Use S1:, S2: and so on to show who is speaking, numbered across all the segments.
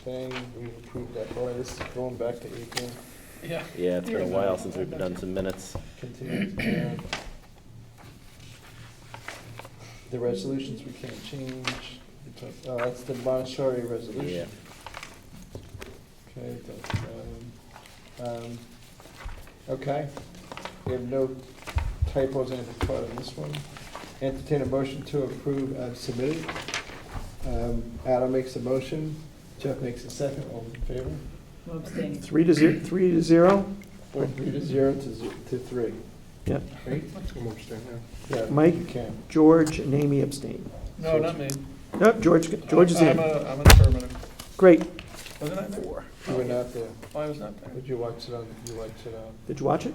S1: thing, we approved that price, going back to April,
S2: Yeah.
S3: Yeah, it's been a while since we've done some minutes.
S1: continues to add. The resolutions we can't change, uh, that's the Montessori
S3: Yeah.
S1: resolution. Okay, that's, um, um, okay, we have no typos, anything caught in this one. Entertain a motion to approve as submitted. Um, Adam makes a motion, Jeff makes a second, all in favor?
S4: I'm abstaining.
S5: Three to zero, three to zero?
S1: Or three to zero to ze- to three.
S5: Yep.
S1: Right?
S2: I'm abstaining.
S1: Yeah,
S5: Mike?
S1: You can.
S5: George and Amy abstain.
S2: No, not me.
S5: Nope, George, George is
S2: I'm
S5: in.
S2: a, I'm an affirmative.
S5: Great.
S2: Wasn't I there?
S1: You were not there,
S2: Oh, I was not there.
S1: but you watched it on, you watched it on.
S5: Did you watch it?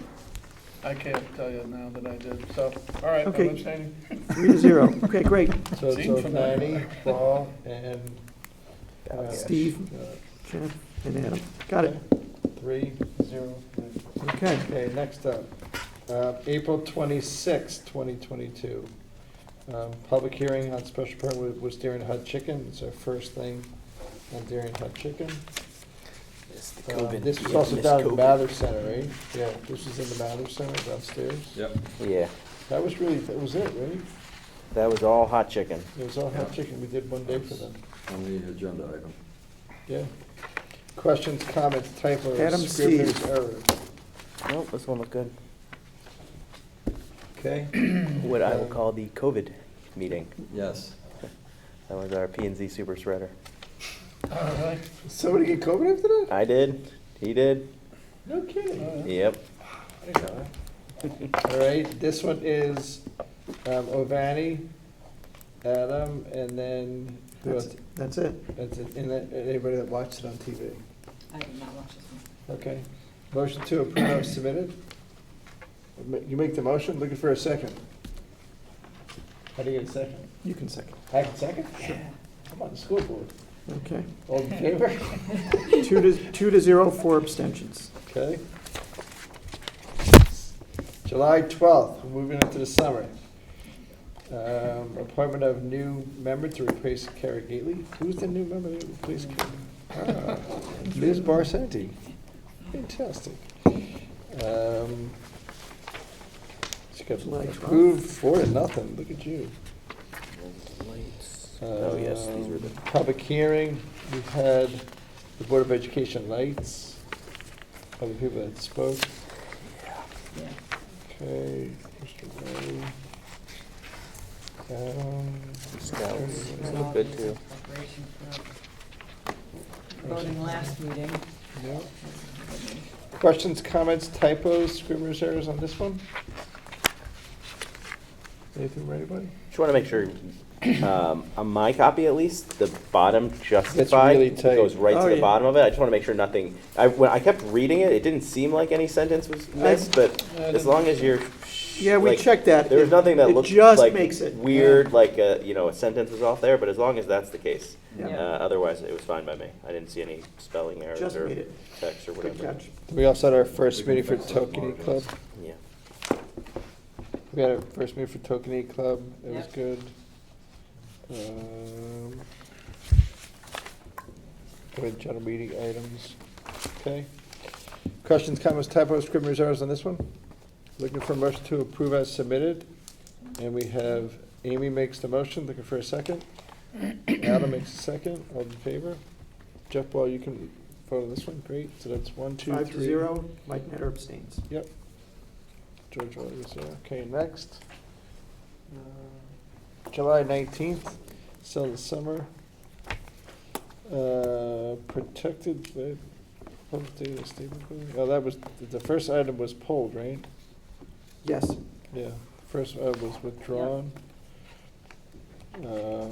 S2: I can't tell you now that I did, so, all right, I'm
S5: Okay.
S2: abstaining.
S5: Three to zero. Okay, great.
S1: So it's
S2: Seen from there.
S1: O'Flaherty, Ball, and. uh,
S5: Steve.
S1: uh,
S5: Jeff and Adam. Got it.
S1: Three, zero. nine.
S5: Okay.
S1: Okay, next up, uh, April twenty-sixth, twenty twenty-two. Um, Public hearing on special permit was- was Darien Hot Chicken, it's our first thing on Darien Hot Chicken. Uh, This was also down in Mather Center, right? Yeah, this was in the Mather Center downstairs.
S6: Yep.
S3: Yeah,
S1: That was really, that was it, right?
S3: that was all hot chicken.
S1: It was all hot chicken, we did one day for them,
S6: On the agenda item.
S1: yeah. Questions, comments,
S5: Adam
S1: typos,
S5: C.
S1: scrivener's errors.
S3: Nope, this one looked good.
S1: Okay,
S3: What I will call the COVID meeting.
S6: Yes.
S3: That was our P and Z super spreader.
S2: All right.
S1: somebody get COVID after that?
S3: I did, he did,
S1: No kidding.
S3: yep.
S1: All right, this one is um, Ovani, Adam, and then, who
S5: That's,
S1: else?
S5: that's it.
S1: That's it. and then uh, anybody that watched it on TV.
S4: I did not watch this one.
S1: Okay, motion to approve as submitted. You make the motion, looking for a second. How do you get a second?
S5: You can second.
S1: I can second? I'm on the school board.
S5: Okay.
S1: All in favor?
S5: Two to, two to zero, four abstentions.
S1: Okay. July 12th, we're moving into the summer. Um, Appointment of new member to replace Kara Gately. Who's the new member to replace Kara? Ah, Liz Barsanti. Fantastic. Um, She got
S5: July 12th.
S1: approved four to nothing. Look at you.
S3: Oh, yes, these were the,
S1: Um, Public hearing, we've had the Board of Education lights, other people that spoke.
S4: Yeah.
S1: Okay, Mr. Ray. Um,
S3: scouts, these look good too.
S4: Preparation for Voting last meeting.
S1: no. Questions, comments, typos, scrivener's errors on this one? Anything from anybody?
S3: Just want to make sure, um, on my copy at least, the bottom
S1: really
S3: justified
S1: tight.
S3: goes right
S5: Oh,
S3: to the
S5: yeah.
S3: bottom of it. I just want to make sure nothing, I, when I kept reading it, it didn't seem like any sentence was missed, but
S2: I
S3: as
S2: didn't-
S3: long as you're.
S5: Yeah, we
S3: like,
S5: checked that.
S3: There was
S5: It-
S3: nothing that
S5: it
S3: looked
S5: just
S3: like
S5: makes it.
S3: weird, like, uh, you know, a sentence was off there, but as long as that's the case.
S5: Yeah.
S3: Uh, otherwise, it was fine by me. I didn't see any spelling errors
S5: Just made
S3: or
S5: it.
S3: text or
S5: Good
S3: whatever.
S5: catch.
S1: We also had our first
S6: We can
S1: meeting for
S6: fix those
S1: Tokenie Club.
S6: markings.
S3: Yeah.
S1: We had our first meeting for Tokenie Club, it was
S4: Yep.
S1: good. Um, We had general meeting items, okay. Questions, comments, typos, scrivener's errors on this one? Looking for a motion to approve as submitted, and we have Amy makes the motion, looking for a second. Adam makes a second, all in favor? Jeff Ball, you can vote on this one, great, so that's one, two, three.
S5: Five to zero, Mike Netter abstains.
S1: Yep. George Rogers, yeah. okay, next. Uh, July nineteenth, still in the summer. Uh, protected, uh, public data statement, building. oh, that was, the first item was pulled, right?
S5: Yes.
S1: Yeah, the first uh, was withdrawn. Uh,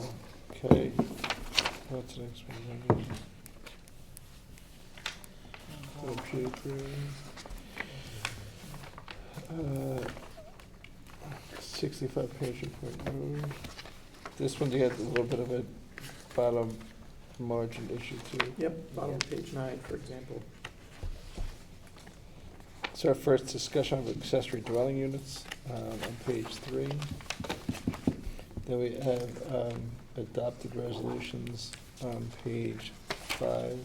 S1: Okay, what's the next one? Therapeutic area. Uh, Sixty-five page report. no. This one, you had a little bit of a bottom margin issue too.
S5: Yep, bottom of page nine, for example.
S1: It's our first discussion of accessory dwelling units um, on page three. Then we have um, adopted resolutions on page five.